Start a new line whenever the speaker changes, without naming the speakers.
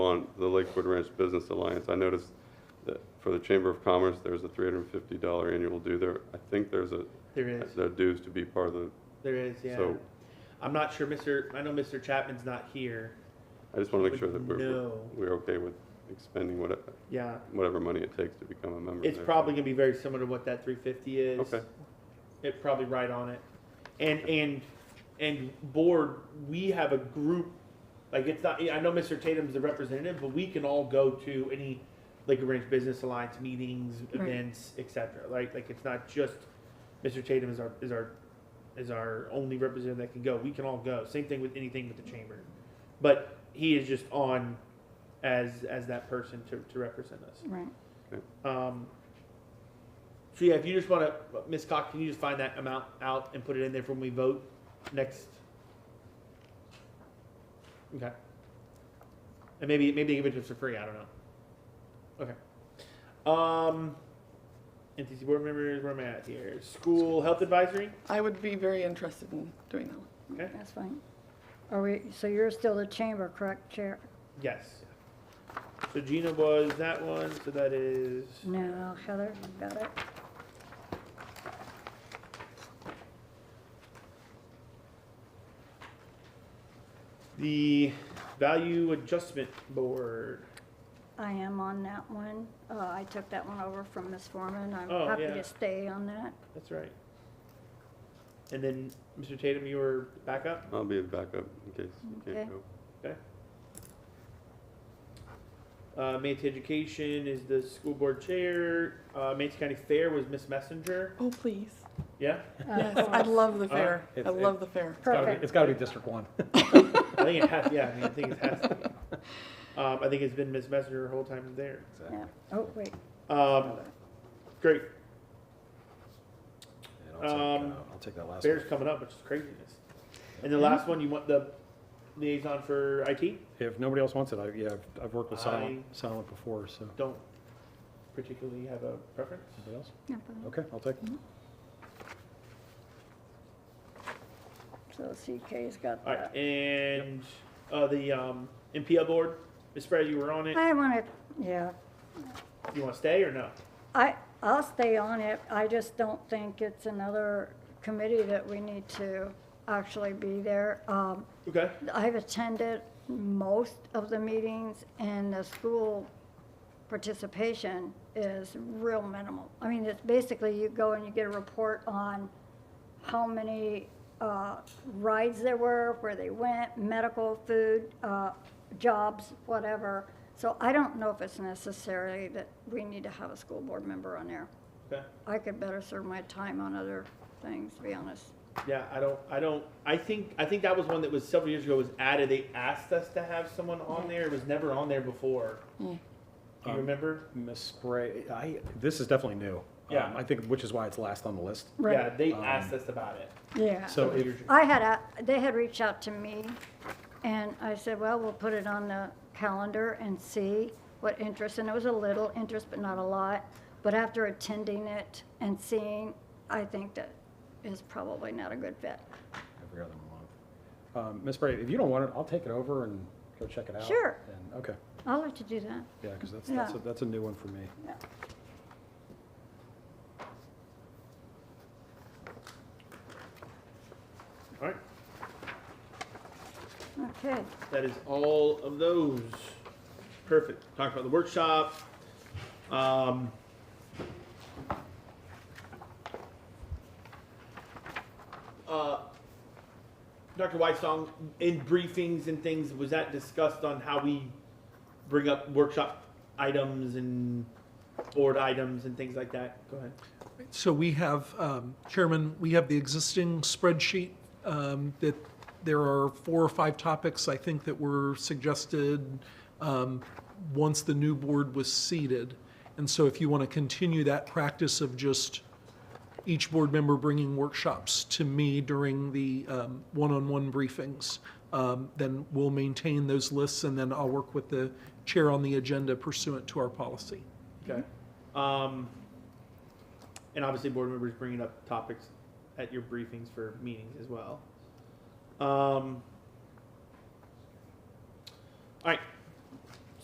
on the Lakewood Ranch Business Alliance, I noticed that for the Chamber of Commerce, there's a three hundred and fifty dollar annual due there. I think there's a,
There is,
there are dues to be part of the,
there is, yeah.
So-
I'm not sure, Mr., I know Mr. Chapman's not here.
I just want to make sure that we're, we're-
No.
we're okay with expending whatever,
Yeah,
whatever money it takes to become a member.
it's
there.
probably gonna be very similar to what that three fifty is.
Okay.
It probably right on it. And, and, and board, we have a group, like it's not, I know Mr. Tatum's the representative, but we can all go to any Lakewood Ranch Business Alliance meetings,
Right.
events, et cetera, like, like it's not just Mr. Tatum is our, is our, is our only representative that can go. We can all go. Same thing with anything with the chamber. But he is just on as, as that person to, to represent us.
Right.
Um, so yeah, if you just want to, Ms. Cox, can you just find that amount out and put it in there for when we vote next? Okay. And maybe maybe give it to us for free. I don't know. Okay. Um, NTC board members, where am I at here? School health advisory.
I would be very interested in doing that. one.
Okay.
That's fine. Are we, so you're still the chamber, correct, Chair?
Yes. So Gina was that one. So that is
No, Heather, you got it?
the value adjustment board.
I am on that one. Uh, I took that one over from Ms. Foreman. I'm
Oh,
happy
yeah.
to stay on that.
That's right. And then, Mr. Tatum, you were back up?
I'll be a backup in case you
Okay.
can't go.
Uh, Manti Education is the school board chair. Uh, Manti County Fair was Miss Messenger.
Oh, please.
Yeah,
Uh,
Yes, I love the fair. I
It's-
love the fair.
Gotta be-
Perfect.
It's gotta be District One.
I think it has, yeah, I mean, I think it has to be. Um, I think it's been Miss Messenger the whole time there.
Yeah. Oh, wait,
Um, great,
And I'll take,
Um,
uh, I'll take that last
Fair's
one.
coming up, which is craziness. And the last one, you want the liaison for IT?
If nobody else wants it, I, yeah, I've- I've worked with Silent,
I-
Silent before, so,
Don't particularly have a preference.
anybody else?
no Mm-hmm. problem.
Okay, I'll take,
So CK's got
All right,
that.
and, uh, the, um, MPL board, Miss Frey, you were on it.
I want to, yeah,
You wanna stay or no?
I, I'll stay on it. I just don't think it's another committee that we need to actually be there. Um,
Okay.
I've attended most of the meetings, and the school participation is real minimal. I mean, it's basically you go and you get a report on how many uh, rides there were, where they went, medical, food, uh, jobs, whatever. So I don't know if it's necessarily that we need to have a school board member on there.
Okay.
I could better serve my time on other things, to be honest.
Yeah, I don't, I don't, I think, I think that was one that was several years ago was added, they asked us to have someone on there, it was never on there before. Do you
Um,
remember?
Miss Spray, I, this is definitely new.
Yeah.
Um, I think, which is why it's last on the list.
Yeah,
Right.
they
Um,
asked us about it.
Yeah.
So
several
if-
years ago.
I had a, they had reached out to me, and I said, well, we'll put it on the calendar and see what interest, and it was a little interest, but not a lot. But after attending it and seeing, I think that is probably not a good fit.
Every other month. Um, Miss Spray, if you don't want it, I'll take it over and go check it out.
Sure.
And, okay,
I'll let you do that.
yeah, because that's, that's, a-
Yeah.
that's a new one for me.
Yeah.
Alright,
Okay,
that is all of those. Perfect, talked about the workshop, um. Uh, Dr. Whitesong, in briefings and things, was that discussed on how we bring up workshop items and board items and things like that? Go ahead.
So we have, um, Chairman, we have the existing spreadsheet um, that there are four or five topics, I think, that were suggested um, once the new board was seated. And so if you want to continue that practice of just each board member bringing workshops to me during the um, one-on-one briefings, um, then we'll maintain those lists, and then I'll work with the chair on the agenda pursuant to our policy.
Okay. Um, and obviously, board members bringing up topics at your briefings for meetings as well. Um, all right,